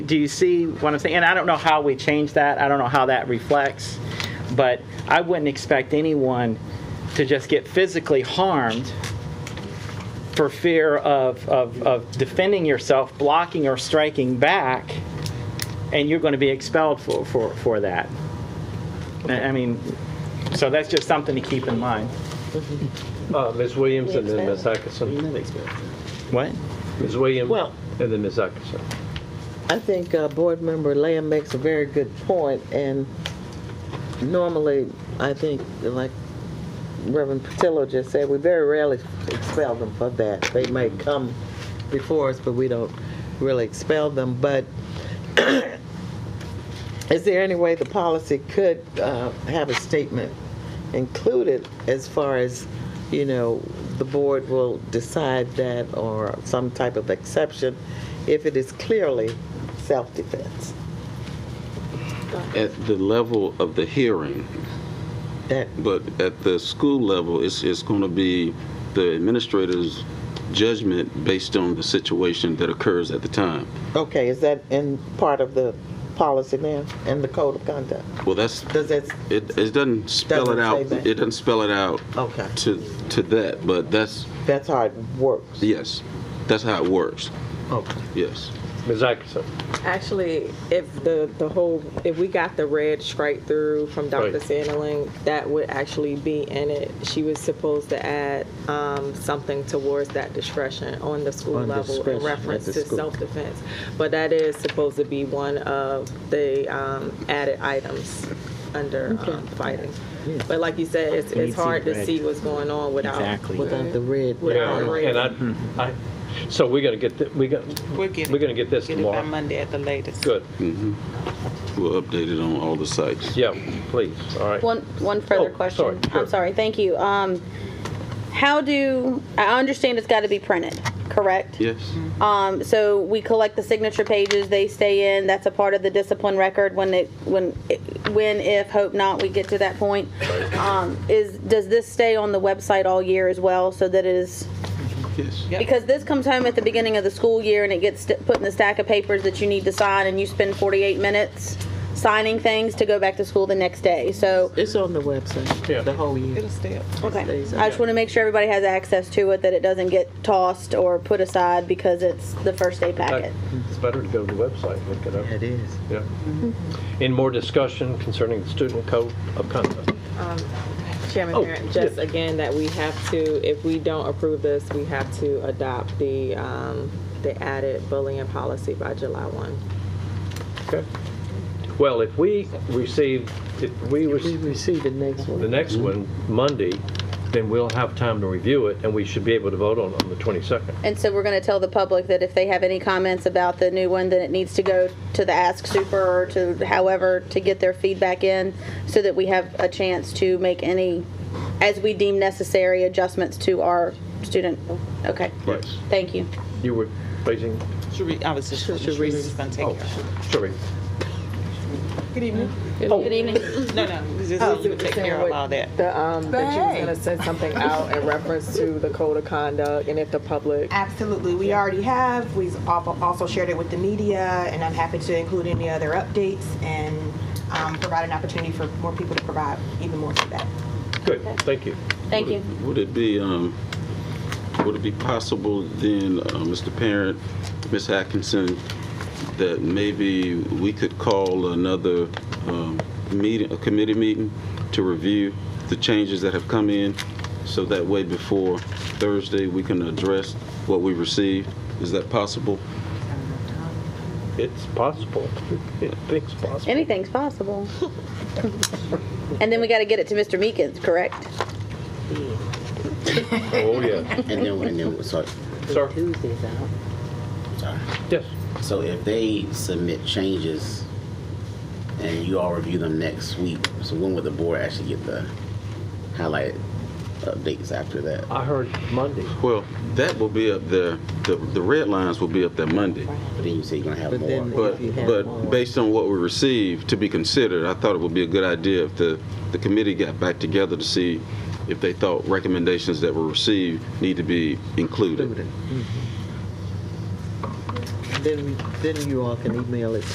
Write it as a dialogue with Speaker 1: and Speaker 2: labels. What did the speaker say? Speaker 1: Do you see what I'm saying? And I don't know how we change that. I don't know how that reflects, but I wouldn't expect anyone to just get physically harmed for fear of, of, of defending yourself, blocking or striking back, and you're going to be expelled for, for, for that. I I mean, so that's just something to keep in mind.
Speaker 2: Uh, Ms. Williams and then Ms. Atkinson.
Speaker 1: What?
Speaker 2: Ms. Williams
Speaker 3: Well-
Speaker 2: and then Ms. Atkinson.
Speaker 3: I think uh, Board Member Lamb makes a very good point, and normally, I think, like Reverend Patillo just said, we very rarely expel them for that. They might come before us, but we don't really expel them. But is there any way the policy could uh, have a statement included as far as, you know, the board will decide that or some type of exception if it is clearly self-defense?
Speaker 4: at the level of the hearing,
Speaker 3: That,
Speaker 4: but at the school level, it's, it's going to be the administrator's judgment based on the situation that occurs at the time.
Speaker 3: okay, is that in part of the policy now and the code of conduct?
Speaker 4: Well, that's,
Speaker 3: Does that,
Speaker 4: it, it doesn't spell
Speaker 3: Doesn't
Speaker 4: it out,
Speaker 3: say that.
Speaker 4: it doesn't spell it out
Speaker 3: okay,
Speaker 4: to, to that, but that's,
Speaker 3: that's how it works.
Speaker 4: yes, that's how it works,
Speaker 3: Okay.
Speaker 4: yes.
Speaker 2: Ms. Atkinson.
Speaker 5: Actually, if the, the whole, if we got the red strike through from Dr.
Speaker 2: Right.
Speaker 5: Sandling, that would actually be in it. She was supposed to add um, something towards that discretion on the school
Speaker 3: On
Speaker 5: level
Speaker 3: discretion
Speaker 5: in
Speaker 3: at
Speaker 5: reference
Speaker 3: the
Speaker 5: to
Speaker 3: school.
Speaker 5: self-defense. But that is supposed to be one of the um, added items under um, fighting.
Speaker 3: Yeah.
Speaker 5: But like you said, it's,
Speaker 1: You need
Speaker 5: it's hard
Speaker 1: to
Speaker 5: to
Speaker 1: see
Speaker 5: see what's going on without.
Speaker 1: Exactly.
Speaker 3: Without the red.
Speaker 5: Without
Speaker 2: Yeah,
Speaker 5: the red.
Speaker 2: And I, I, so we're going to get, th- we got,
Speaker 6: We're getting.
Speaker 2: We're gonna get this
Speaker 6: it by
Speaker 2: tomorrow.
Speaker 6: Monday at the latest.
Speaker 2: good,
Speaker 4: We'll update it on all the sites.
Speaker 2: yeah, please, all right.
Speaker 7: One, one further
Speaker 2: Oh, sorry,
Speaker 7: question.
Speaker 2: sure.
Speaker 7: I'm sorry, thank you. Um, How do, I understand it's got to be printed, correct?
Speaker 4: Yes,
Speaker 7: Um, So we collect the signature pages, they stay in, that's a part of the discipline record when it, when, it- when, if, hope not, we get to that point. Um, Is, does this stay on the website all year as well, so that it is,
Speaker 4: yes.
Speaker 6: Yep.
Speaker 7: because this comes home at the beginning of the school year and it gets st- put in the stack of papers that you need to sign and you spend 48 minutes signing things to go back to school the next day, so.
Speaker 3: It's on the website,
Speaker 2: Yeah.
Speaker 3: the whole year.
Speaker 6: It'll stay up.
Speaker 7: Okay,
Speaker 3: Stays
Speaker 7: I just
Speaker 3: up.
Speaker 7: want to make sure everybody has access to it, that it doesn't get tossed or put aside because it's the first day packet.
Speaker 2: It's better to go to the website, look it up.
Speaker 3: It is.
Speaker 2: Yeah. Any more discussion concerning the student code of conduct?
Speaker 5: Chairman
Speaker 2: Oh,
Speaker 5: Parent, just
Speaker 2: yes.
Speaker 5: again that we have to, if we don't approve this, we have to adopt the, um, the added bullying policy by July one.
Speaker 2: Okay. Well, if we receive, if we
Speaker 3: We
Speaker 2: receive
Speaker 3: receive the next
Speaker 2: the
Speaker 3: one.
Speaker 2: next one Monday, then we'll have time to review it, and we should be able to vote on it on the 22nd.
Speaker 7: And so we're going to tell the public that if they have any comments about the new one, then it needs to go to the Ask Super or to however to get their feedback in so that we have a chance to make any, as we deem necessary, adjustments to our student. Okay,
Speaker 2: Yes.
Speaker 7: thank you.
Speaker 2: You were raising,
Speaker 6: Sheree, I was just, Sharice is gonna take
Speaker 2: oh,
Speaker 6: care of
Speaker 2: sorry.
Speaker 6: it. Good evening.
Speaker 7: Good evening.
Speaker 6: No, no, just
Speaker 3: Oh,
Speaker 6: Helen would take care of all that.
Speaker 5: The, um, that you was gonna send something out in reference to the code of conduct and if the public.
Speaker 8: Absolutely. We already have. We've al- also shared it with the media, and I'm happy to include any other updates and um, provide an opportunity for more people to provide even more feedback.
Speaker 2: Good, thank you.
Speaker 7: Thank you.
Speaker 4: Would it be, um, would it be possible then, uh, Mr. Parent, Ms. Atkinson, that maybe we could call another um, meeting, a committee meeting to review the changes that have come in? So that way before Thursday, we can address what we received? Is that possible?
Speaker 2: It's possible. It's possible.
Speaker 7: Anything's possible. And then we got to get it to Mr. Meekins, correct?
Speaker 2: Oh, yeah.
Speaker 9: And then, and then, so,
Speaker 2: Sir?
Speaker 3: Tuesday's out.
Speaker 9: sorry.
Speaker 2: Yes.
Speaker 9: So if they submit changes and you all review them next week, so when would the board actually get the highlighted updates after that?
Speaker 2: I heard Monday.
Speaker 4: Well, that will be up there, the, the red lines will be up there Monday.
Speaker 9: But then you say you're gonna have
Speaker 3: But then-
Speaker 9: more.
Speaker 4: But,
Speaker 3: If you have more.
Speaker 4: but based on what we received to be considered, I thought it would be a good idea if the, the committee got back together to see if they thought recommendations that were received need to be included.
Speaker 3: then, then you all can email it